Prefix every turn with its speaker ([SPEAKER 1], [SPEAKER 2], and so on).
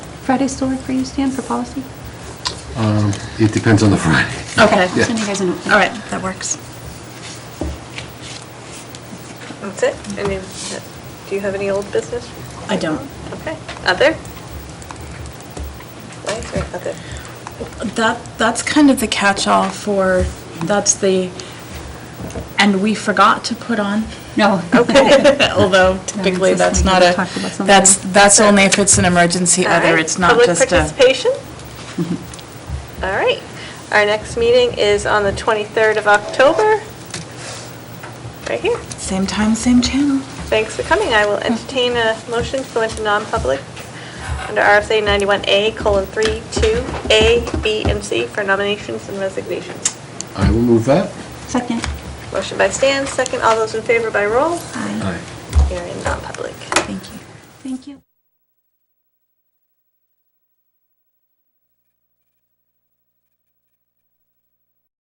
[SPEAKER 1] Friday still work for you, Stan, for policy?
[SPEAKER 2] Um, It depends on the Friday.
[SPEAKER 3] Okay.
[SPEAKER 2] Yeah.
[SPEAKER 1] Send you guys a note.
[SPEAKER 3] All right, that works.
[SPEAKER 4] That's it? I mean, that- do you have any old business?
[SPEAKER 3] I don't.
[SPEAKER 4] Okay. Other? Why is there other?
[SPEAKER 3] That, that's kind of the catch-all for, that's the, and we forgot to put on.
[SPEAKER 1] No.
[SPEAKER 3] Although typically,
[SPEAKER 1] it's just like
[SPEAKER 3] that's not
[SPEAKER 1] we
[SPEAKER 3] a,
[SPEAKER 1] talked about something.
[SPEAKER 3] that's, that's only if it's an emergency
[SPEAKER 4] All
[SPEAKER 3] other,
[SPEAKER 4] right.
[SPEAKER 3] it's not
[SPEAKER 4] Public
[SPEAKER 3] just a.
[SPEAKER 4] participation? All right. Our next meeting is on the 23rd of October, right here.
[SPEAKER 3] Same time, same channel.
[SPEAKER 4] Thanks for coming. I will entertain a motion to go into non-public under RSA 91A, colon, 3, 2, A, B, and C for nominations and resignations.
[SPEAKER 2] I will move that.
[SPEAKER 1] Second.
[SPEAKER 4] Motion by Stan, second. All those in favor by roll?
[SPEAKER 2] Aye.
[SPEAKER 4] Here in non-public.